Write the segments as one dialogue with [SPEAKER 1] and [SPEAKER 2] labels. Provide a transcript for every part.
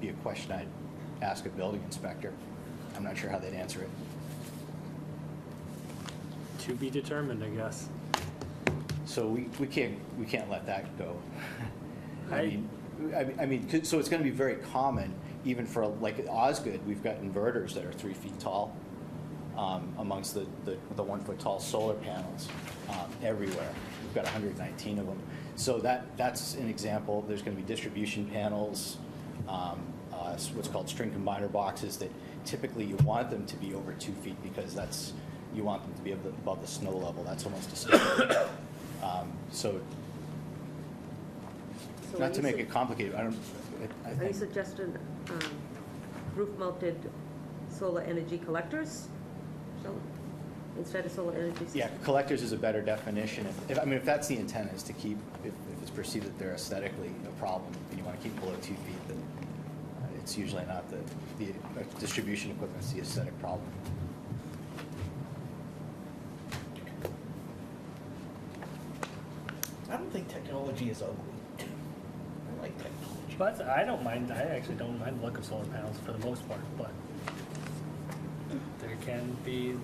[SPEAKER 1] be a question I'd ask a building inspector. I'm not sure how they'd answer it.
[SPEAKER 2] To be determined, I guess.
[SPEAKER 1] So we, we can't, we can't let that go. I
[SPEAKER 2] I-
[SPEAKER 1] mean, I mean- I mean, 'cause- so it's going to be very common, even for, like, at Osgood, we've got inverters that are three feet tall um, amongst the, the the one-foot-tall solar panels um, everywhere. We've got 119 of them. So that, that's an example. There's going to be distribution panels, um, uh, s- what's called string combiner boxes that typically you want them to be over two feet because that's, you want them to be above the- above the snow level. That's almost a standard. Um, So
[SPEAKER 3] So are
[SPEAKER 1] Not to
[SPEAKER 3] you
[SPEAKER 1] make
[SPEAKER 3] su-
[SPEAKER 1] it complicated, I don't, I- I
[SPEAKER 3] Are you
[SPEAKER 1] think,
[SPEAKER 3] suggesting um, roof-mounted solar energy collectors? So, Instead of solar energy systems?
[SPEAKER 1] yeah, collectors is a better definition. If- If, I mean, if that's the intent, is to keep, if if it's perceived that they're aesthetically a problem, and you want to keep below two feet, then uh, it's usually not the, the uh, distribution equipment's the aesthetic problem.
[SPEAKER 4] I don't think technology is ugly. I like technology.
[SPEAKER 2] But I don't mind, I actually don't mind the look of solar panels for the most part, but there can be,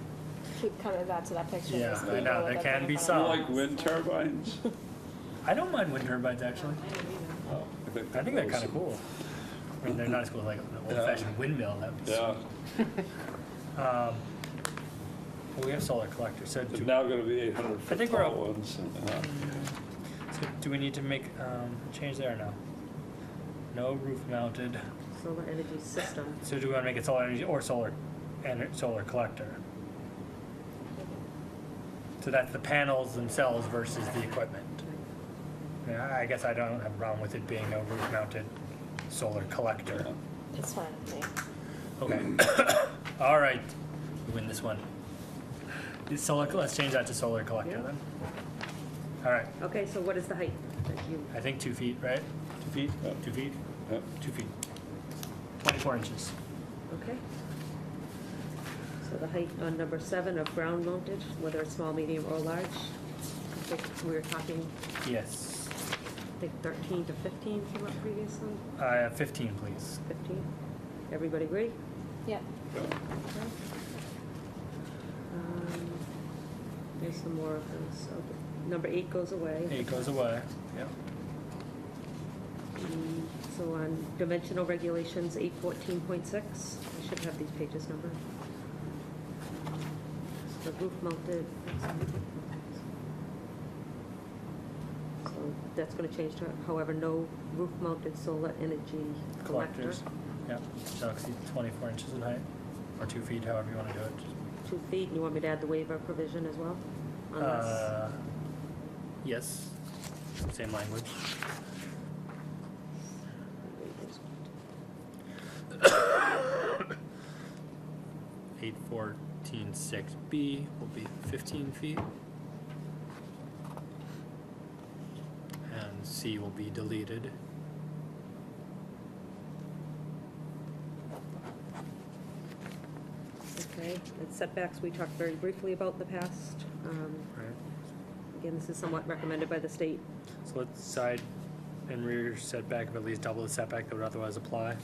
[SPEAKER 5] keep coming back to that picture.
[SPEAKER 2] Yeah,
[SPEAKER 5] because
[SPEAKER 2] I know,
[SPEAKER 5] people
[SPEAKER 2] there
[SPEAKER 5] look
[SPEAKER 2] can
[SPEAKER 5] in
[SPEAKER 2] be
[SPEAKER 5] front
[SPEAKER 2] some.
[SPEAKER 5] of
[SPEAKER 6] You
[SPEAKER 5] us.
[SPEAKER 6] like wind turbines?
[SPEAKER 2] I don't mind wind turbines actually.
[SPEAKER 6] Oh,
[SPEAKER 2] I think they're
[SPEAKER 6] those-
[SPEAKER 2] kind of cool. I mean, they're not as cool as like an old fashioned windmill, that would be.
[SPEAKER 6] Yeah,
[SPEAKER 2] Um, but we have solar collectors, so
[SPEAKER 6] there's
[SPEAKER 2] do,
[SPEAKER 6] now gonna be eight hundred
[SPEAKER 2] I
[SPEAKER 6] foot
[SPEAKER 2] think we're
[SPEAKER 6] tall
[SPEAKER 2] up.
[SPEAKER 6] ones. yeah.
[SPEAKER 2] so do we need to make, um, change there or no? No roof mounted,
[SPEAKER 3] Solar energy system.
[SPEAKER 2] so do we wanna make it solar energy or solar, and solar collector? So that's the panels themselves versus the equipment. Yeah, I guess I don't have a problem with it being a roof mounted solar collector.
[SPEAKER 5] It's fine with me.
[SPEAKER 2] Okay. All right, we win this one. Is solar, let's change that to solar collector
[SPEAKER 3] Yeah.
[SPEAKER 2] then. All right,
[SPEAKER 3] Okay, so what is the height that you,
[SPEAKER 2] I think two feet, right? Two feet?
[SPEAKER 6] Yeah.
[SPEAKER 2] Two feet?
[SPEAKER 6] Yeah.
[SPEAKER 2] Two feet. Twenty-four inches.
[SPEAKER 3] okay? So the height on number seven of ground-mounted, whether it's small, medium, or large, I think we were talking,
[SPEAKER 2] Yes.
[SPEAKER 3] I think 13 to 15 came up previously,
[SPEAKER 2] Uh, fifteen, please.
[SPEAKER 3] 15? Everybody agree?
[SPEAKER 5] Yeah.
[SPEAKER 6] Yeah.
[SPEAKER 3] Um, There's some more of those. Okay. Number eight goes away.
[SPEAKER 2] It goes away. Yep.
[SPEAKER 3] Mm, So on dimensional regulations, eight fourteen point six, I should have these pages numbered. So The roof mounted. So that's gonna change to, however, no roof mounted solar energy collector.
[SPEAKER 2] Collectors. Yep, shall exceed twenty-four inches in height, or two feet, however you wanna do it.
[SPEAKER 3] Two feet, and you want me to add the waiver provision as well? Unless,
[SPEAKER 2] Uh, Yes, same language. Eight fourteen six B will be fifteen feet. And C will be deleted.
[SPEAKER 3] okay, and setbacks, we talked very briefly about in the past. Um,
[SPEAKER 2] Right.
[SPEAKER 3] Again, this is somewhat recommended by the state.
[SPEAKER 2] So let's side and rear setback of at least double the setback that would otherwise apply.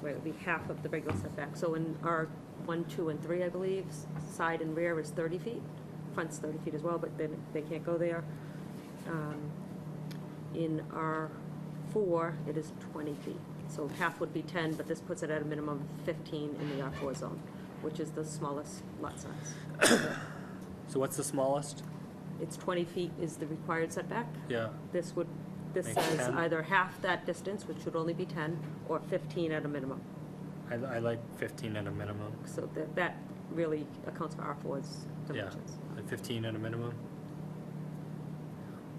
[SPEAKER 3] Right, it would be half of the regular setback. So in our one, two, and three, I believe, s- side and rear is 30 feet. Front's 30 feet as well, but then they can't go there. Um, In our four, it is 20 feet. So half would be 10, but this puts it at a minimum of 15 in the R4 zone, which is the smallest lot size.
[SPEAKER 2] So what's the smallest?
[SPEAKER 3] It's 20 feet is the required setback.
[SPEAKER 2] Yeah,
[SPEAKER 3] This would, this
[SPEAKER 2] Makes
[SPEAKER 3] says
[SPEAKER 2] 10.
[SPEAKER 3] either half that distance, which should only be 10, or 15 at a minimum.
[SPEAKER 2] I, I like fifteen at a minimum.
[SPEAKER 3] So that, that really accounts for R4's
[SPEAKER 2] Yeah,
[SPEAKER 3] dimensions.
[SPEAKER 2] like fifteen at a minimum.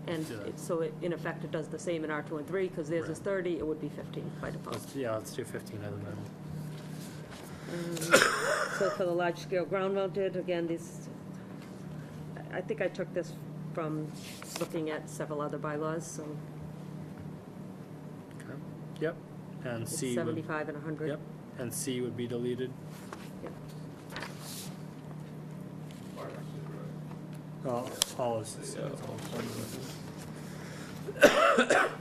[SPEAKER 3] And
[SPEAKER 2] do that.
[SPEAKER 3] it- so it, in effect, it does the same in R2 and 3, because theirs is
[SPEAKER 2] Right.
[SPEAKER 3] 30, it would be 15 by default.
[SPEAKER 2] Let's, Oh, yeah, let's do fifteen at a minimum.
[SPEAKER 3] Mm. So for the large-scale ground-mounted, again, these, I- I think I took this from looking at several other bylaws, so
[SPEAKER 2] Okay. Yep, and
[SPEAKER 3] it's
[SPEAKER 2] C would,
[SPEAKER 3] 75 and 100.
[SPEAKER 2] yep, and C would be deleted.
[SPEAKER 3] Yep.
[SPEAKER 2] All, all of C.
[SPEAKER 6] Yeah.